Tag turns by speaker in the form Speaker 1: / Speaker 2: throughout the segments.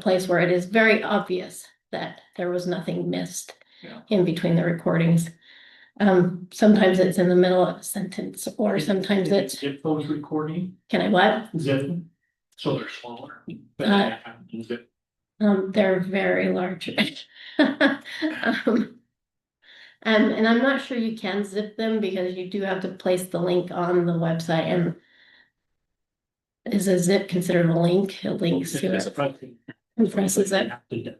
Speaker 1: place where it is very obvious that there was nothing missed
Speaker 2: Yeah.
Speaker 1: in between the recordings. Um, sometimes it's in the middle of a sentence, or sometimes it's,
Speaker 2: Zip phones recording,
Speaker 1: can I what?
Speaker 2: zip, so they're smaller.
Speaker 1: Uh,
Speaker 2: Zip.
Speaker 1: Um, they're very large. Um, And, and I'm not sure you can zip them because you do have to place the link on the website and is a zip considered a link? It links to
Speaker 2: It's a
Speaker 1: it,
Speaker 2: front thing.
Speaker 1: compresses it.
Speaker 2: It's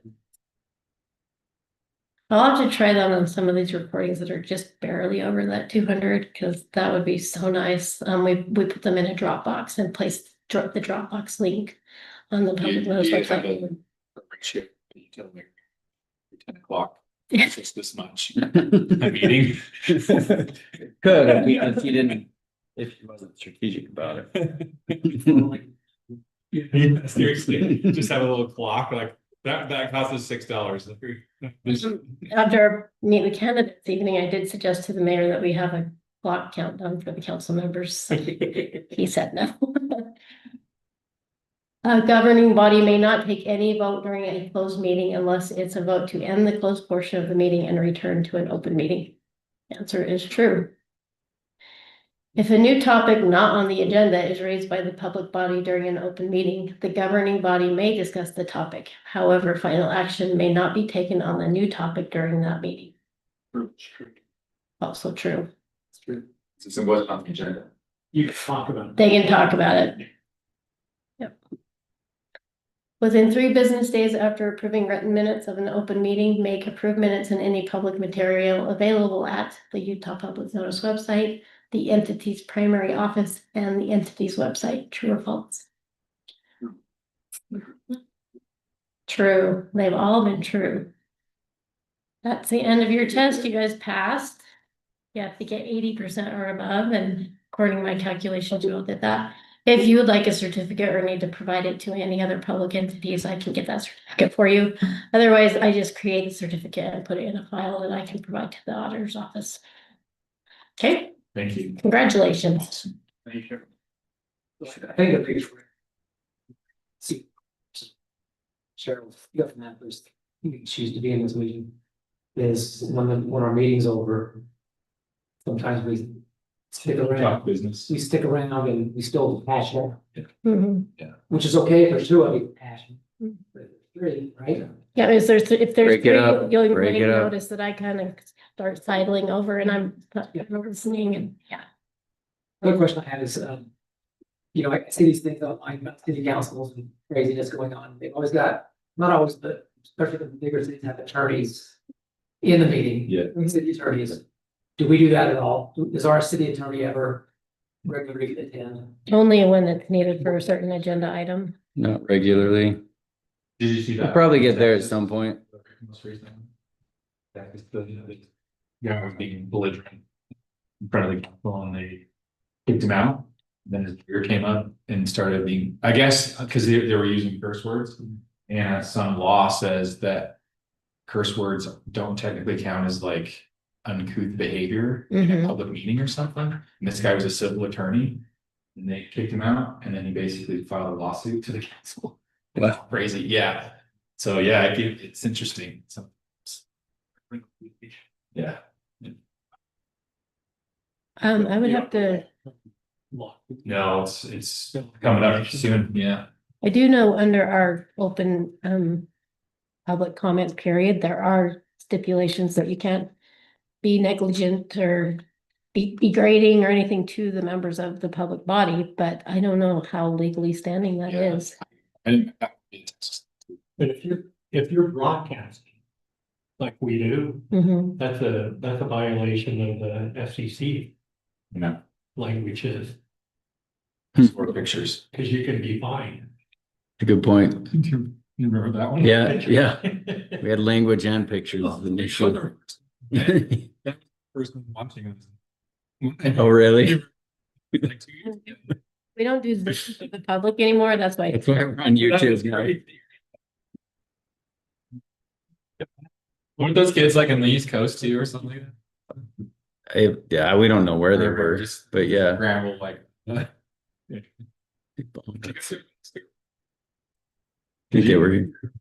Speaker 1: I'll have to try that on some of these recordings that are just barely over that two hundred, because that would be so nice. Um, we, we put them in a Dropbox and placed, drop the Dropbox link on the
Speaker 3: Do you-
Speaker 1: public
Speaker 3: do
Speaker 1: notice
Speaker 3: you have
Speaker 1: website.
Speaker 3: a ratio that you tell me Ten o'clock,
Speaker 1: Yeah.
Speaker 3: it's this much. A meeting.
Speaker 4: Could, if we- if you didn't, if he wasn't strategic about it.
Speaker 5: Yeah, seriously, just have a little clock, like, that, that costs us six dollars.
Speaker 1: After our meet the candidates evening, I did suggest to the mayor that we have a clock countdown for the council members. He said no. A governing body may not take any vote during a closed meeting unless it's a vote to end the closed portion of the meeting and return to an open meeting. Answer is true. If a new topic not on the agenda is raised by the public body during an open meeting, the governing body may discuss the topic. However, final action may not be taken on the new topic during that meeting.
Speaker 2: true.
Speaker 1: Also true.
Speaker 3: Since it wasn't on the agenda.
Speaker 2: You can talk about. it.
Speaker 1: They can talk about it. Yep. Within three business days after approving written minutes of an open meeting, make approved minutes and any public material available at the Utah Public Notice website, the entity's primary office, and the entity's website, true or false? True, they've all been true. That's the end of your test, you guys passed. You have to get eighty percent or above, and according to my calculations, you all did that. If you would like a certificate or need to provide it to any other public entities, I can get that certificate for you. Otherwise, I just create a certificate and put it in a file that I can provide to the auditor's office. Okay,
Speaker 3: Thank you.
Speaker 1: congratulations.
Speaker 3: Thank you.
Speaker 6: I think the page where. See. Cheryl, you got from that first, you can choose to be in this meeting. Is when the, when our meeting's over. Sometimes we stick
Speaker 5: Talk
Speaker 6: around,
Speaker 5: business.
Speaker 6: we stick around and we still passionate,
Speaker 1: Mhm.
Speaker 6: which is okay if there's two of you passionate.
Speaker 1: Mm.
Speaker 6: But Three, right?
Speaker 1: Yeah, is there's, if there's
Speaker 4: Break it
Speaker 1: three,
Speaker 4: up,
Speaker 1: you'll,
Speaker 4: break
Speaker 1: you'll
Speaker 4: it up.
Speaker 1: notice that I kind of start sidling over and I'm not
Speaker 6: Yeah.
Speaker 1: listening and, yeah.
Speaker 6: Another question I had is, um. You know, I see these things online about city councils and craziness going on. They've always got, not always, but especially the bigger cities have attorneys. In the meeting.
Speaker 5: Yeah.
Speaker 6: the City attorneys. Do we do that at all? Does our city attorney ever regularly attend?
Speaker 1: Only when it's needed for a certain agenda item.
Speaker 4: Not regularly.
Speaker 5: Did you see
Speaker 4: We'll
Speaker 5: that?
Speaker 4: probably get there at some point.
Speaker 5: Most recent one? That is the, the guy was being belligerent. In front of the council and they kicked him out. Then his beer came up and started being, I guess, because they, they were using curse words. And some law says that curse words don't technically count as like uncouth behavior in
Speaker 1: Mhm.
Speaker 5: a public meeting or something. And this guy was a civil attorney. And they kicked him out and then he basically filed a lawsuit to the council.
Speaker 4: Wow.
Speaker 5: Crazy, yeah. So yeah, it- it's interesting. So- Yeah.
Speaker 1: Um, I would have to.
Speaker 2: Lock.
Speaker 5: No, it's, it's coming up soon, yeah.
Speaker 1: I do know under our open, um, public comment period, there are stipulations that you can't be negligent or be degrading or anything to the members of the public body, but I don't know how legally standing that
Speaker 5: Yeah.
Speaker 1: is.
Speaker 5: And
Speaker 2: But if you're, if you're broadcasting. Like we do,
Speaker 1: Mhm.
Speaker 2: that's a, that's a violation of the FCC
Speaker 5: you know,
Speaker 2: languages,
Speaker 5: four pictures.
Speaker 2: because you can be fined.
Speaker 4: Good point.
Speaker 5: Do you remember that one?
Speaker 4: Yeah, yeah. We had language and pictures initially. Oh,
Speaker 5: Person watching this.
Speaker 4: really?
Speaker 5: Like two years ago.
Speaker 1: We don't do this to the public anymore, that's why.
Speaker 4: That's why we're on YouTube now.
Speaker 5: Weren't those kids like in the East Coast too or something? like that?
Speaker 4: I- Yeah, we don't know where they
Speaker 5: Or
Speaker 4: were,
Speaker 5: Just
Speaker 4: but yeah.
Speaker 5: scramble like.
Speaker 4: think they were